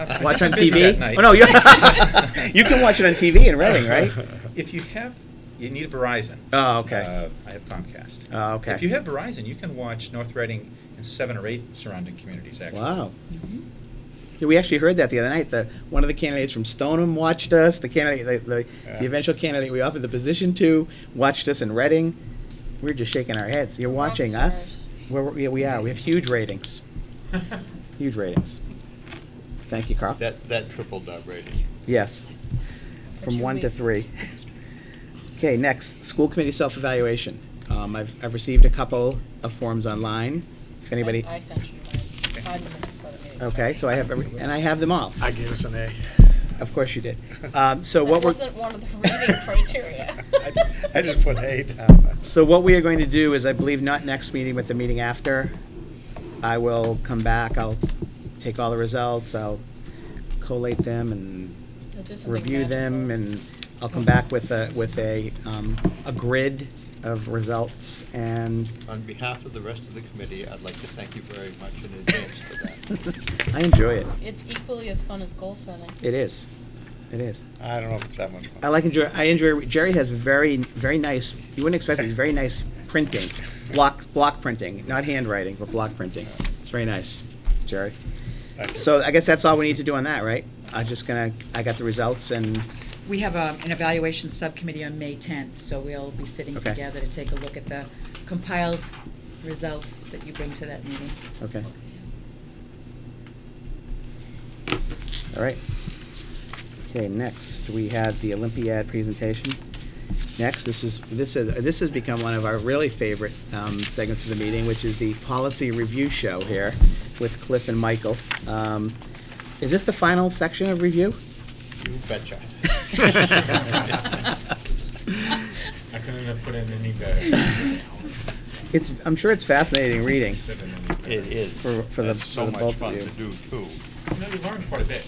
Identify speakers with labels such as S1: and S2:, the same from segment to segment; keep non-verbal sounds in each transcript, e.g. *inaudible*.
S1: *laughs* Watch on
S2: I'm busy
S1: TV?
S2: that night. *laughs*
S1: Oh, no, you, *laughs* you can watch it on TV in Reading, right?
S2: If you have, you need Verizon.
S1: Oh, okay.
S2: Uh, I have Comcast.
S1: Oh, okay.
S2: If you have Verizon, you can watch North Reading and seven or eight surrounding communities, actually.
S1: Wow. Yeah, We actually heard that the other night. The, one of the candidates from Stoneham watched us. The candidate, the, the,
S2: Yeah.
S1: the eventual candidate we offered the position to watched us in Reading. We are just shaking our heads. You're watching us? We're, we- we are. We have huge ratings. Huge ratings. Thank you, Carl.
S3: That, that tripled our rating.
S1: Yes. From
S4: two
S1: one to
S4: weeks.
S1: three. Okay, next, school committee self-evaluation. Um, I've, I've received a couple of forms online. If anybody,
S4: I I sent you mine five minutes before the meeting.
S1: okay, so I have, every- and I have them all.
S5: I gave us an A.
S1: Of course you did. Um, so
S4: That
S1: what we're,
S4: wasn't one of the
S1: *laughs*
S4: reading criteria.
S3: I- I just put A down.
S1: so what we are going to do is, I believe, not next meeting, but the meeting after. I will come back, I'll take all the results, I'll collate them and
S4: You'll do something
S1: review them,
S4: magical.
S1: and I'll come back with a, with a, um, a grid of results
S4: *laughs*
S1: and
S3: On behalf of the rest of the committee, I'd like to thank you very much in advance for
S2: *laughs*
S3: that.
S1: I enjoy it.
S4: It's equally as fun as goal setting.
S1: It is. It is.
S3: I don't know if it's that much fun.
S1: I like enjoy. I enjoy. Jerry has very, very nice. You wouldn't expect it. He's very nice printing, block, block printing, not handwriting, but block printing. It's very nice, Jerry.
S3: Thank you.
S1: So I guess that's all we need to do on that, right? I'm just gonna. I got the results, and
S6: We have um, an evaluation subcommittee on May 10th, so we'll be sitting
S1: Okay.
S6: together to take a look at the compiled results that you bring to
S4: *laughs*
S6: that meeting.
S1: okay. All right. Okay. Next, we had the Olympiad presentation. Next, this is this is this has become one of our really favorite um, segments of the meeting, which is the policy review show here with Cliff and Michael. Um, is this the final section of review? *laughs*
S3: You
S5: *laughs*
S3: betcha.
S7: I couldn't have put in any better.
S1: *laughs* It's I'm sure it's fascinating reading.
S3: It is.
S1: For- for the-
S3: That's
S1: for
S3: so
S1: the
S3: much
S1: both of
S3: fun
S1: you.
S3: to do, too.
S7: No, we learned quite a bit.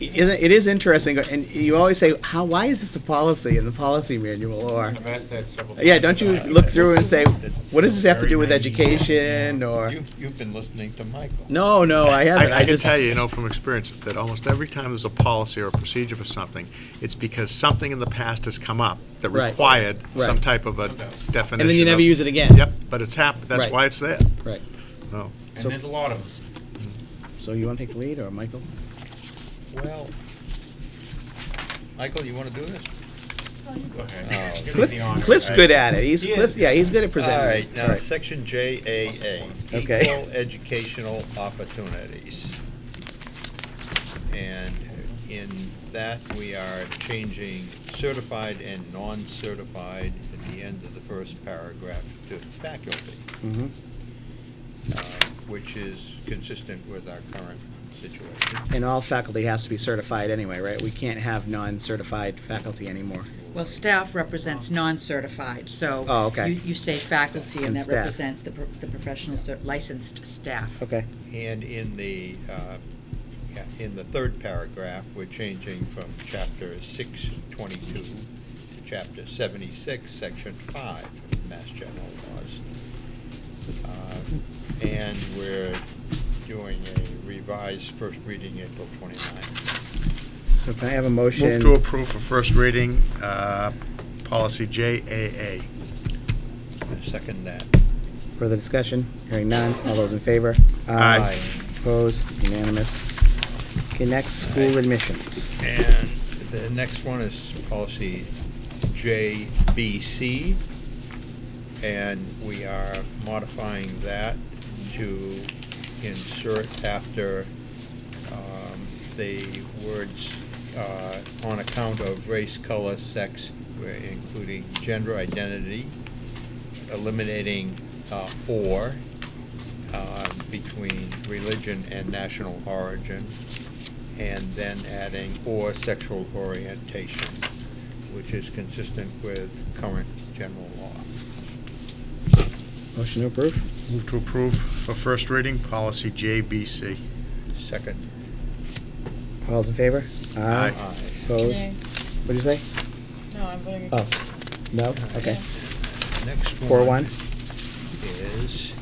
S1: It is- it is interesting, and you always say, "How? Why is this a policy in the policy manual?" Or
S7: I've asked that several times.
S1: yeah, don't you
S7: about it.
S1: look through and say, "What does this have to do with education?" Or
S3: You, you've been listening to Michael.
S1: no, no, I haven't.
S5: I, I can
S1: just
S5: tell you, you know, from experience, that almost every time there's a policy or a procedure for something, it's because something in the past has come up that
S1: Right.
S5: required some
S1: Right.
S5: type of a definition.
S1: and then you never
S5: of-
S1: use it again.
S5: Yep, but it's happened, that's
S1: Right.
S5: why it's there.
S1: Right.
S5: No.
S1: So-
S7: And there's a lot of them.
S1: So you want to take the lead, or Michael?
S3: Well, Michael, you want to do this?
S7: Go ahead.
S3: Oh.
S7: Give me
S1: Cliff,
S7: the honor.
S1: Cliff's good at it. He's
S3: He
S1: Cliff's,
S3: is.
S1: yeah, he's good at
S3: All
S1: presenting.
S3: right,
S1: All
S3: now,
S1: right.
S3: section JAA,
S1: Okay.
S3: equal educational opportunities. And in that, we are changing certified and non-certified at the end of the first paragraph to faculty,
S1: Mhm.
S3: uh, which is consistent with our current situation.
S1: And all faculty has to be certified anyway, right? We can't have non-certified faculty anymore.
S6: Well, staff represents non-certified, so.
S1: Oh, okay.
S6: You, you say faculty,
S1: And
S6: and that
S1: staff.
S6: represents the, pro- the professional cer- licensed staff.
S1: Okay.
S3: And in the, uh, yeah, in the third paragraph, we're changing from chapter six twenty-two to chapter seventy-six, section five of Mass General Laws. Uh, And we're doing a revised first reading April twenty-ninth.
S1: So can I have a motion?
S5: Move to approve for first reading, uh, policy JAA.
S3: Second that.
S1: Further discussion? Hearing none. All those in favor?
S5: Aye.
S1: Opposed? Unanimous. Okay, next, school admissions.
S3: And the next one is policy JBC, and we are modifying that to insert after um, the words uh, on account of race, color, sex, we're including gender identity, eliminating uh, or uh, between religion and national origin, and then adding or sexual orientation, which is consistent with current general law.
S1: Motion to approve?
S5: Move to approve for first reading, policy JBC.
S3: Second.
S1: All those in favor?
S5: Aye.
S1: Opposed?
S4: Nay.
S1: What'd you say?
S4: No, I'm voting
S1: Oh,
S4: against.
S1: no? Okay.
S3: Next one.
S1: Four one?
S3: Is uh,